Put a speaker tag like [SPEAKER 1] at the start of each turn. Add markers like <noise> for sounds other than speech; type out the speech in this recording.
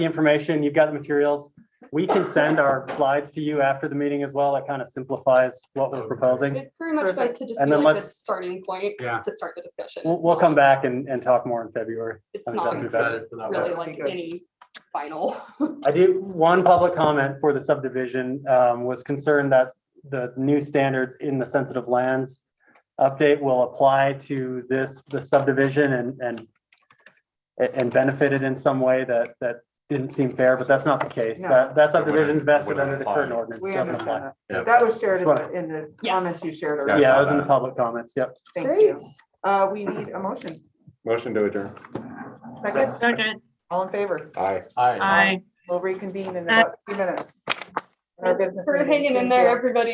[SPEAKER 1] the information, you've got the materials. We can send our slides to you after the meeting as well. That kind of simplifies what we're proposing.
[SPEAKER 2] It's very much like to just
[SPEAKER 1] And
[SPEAKER 2] be
[SPEAKER 1] then
[SPEAKER 2] like the
[SPEAKER 1] let's-
[SPEAKER 2] starting point
[SPEAKER 3] Yeah.
[SPEAKER 2] to start the discussion.
[SPEAKER 1] We'll,
[SPEAKER 2] It's
[SPEAKER 1] we'll
[SPEAKER 2] not-
[SPEAKER 1] come back and, and talk more in February.
[SPEAKER 2] It's
[SPEAKER 1] I think
[SPEAKER 2] not
[SPEAKER 1] that'd be better.
[SPEAKER 3] excited for that.
[SPEAKER 2] really
[SPEAKER 3] one.
[SPEAKER 2] like any final.
[SPEAKER 1] I did, one public comment for the subdivision um, was concerned that the new standards in the sensitive lands update will apply to this, the subdivision and, and and benefit it in some way that, that didn't seem fair, but that's not the case.
[SPEAKER 4] No.
[SPEAKER 1] That, that
[SPEAKER 5] It wouldn't-
[SPEAKER 1] subdivision's vested
[SPEAKER 5] wouldn't
[SPEAKER 1] under the
[SPEAKER 5] apply.
[SPEAKER 1] current ordinance,
[SPEAKER 4] We
[SPEAKER 1] doesn't apply.
[SPEAKER 4] understand that. That was shared in
[SPEAKER 1] That's
[SPEAKER 4] the, in the
[SPEAKER 2] Yes.
[SPEAKER 4] comments you shared
[SPEAKER 5] I
[SPEAKER 4] earlier.
[SPEAKER 1] Yeah,
[SPEAKER 5] saw
[SPEAKER 1] it was in the
[SPEAKER 5] that.
[SPEAKER 1] public comments, yep.
[SPEAKER 4] Thank you. Uh, we need a motion.
[SPEAKER 5] Motion to adjourn.
[SPEAKER 4] Second,
[SPEAKER 6] Second,
[SPEAKER 4] all in favor?
[SPEAKER 5] Aye.
[SPEAKER 3] Aye.
[SPEAKER 6] aye.
[SPEAKER 4] We'll reconvene in about a few minutes. Our business
[SPEAKER 2] For
[SPEAKER 4] meeting.
[SPEAKER 2] hanging in <laughs>
[SPEAKER 4] Thank
[SPEAKER 2] there,
[SPEAKER 4] you.
[SPEAKER 2] everybody.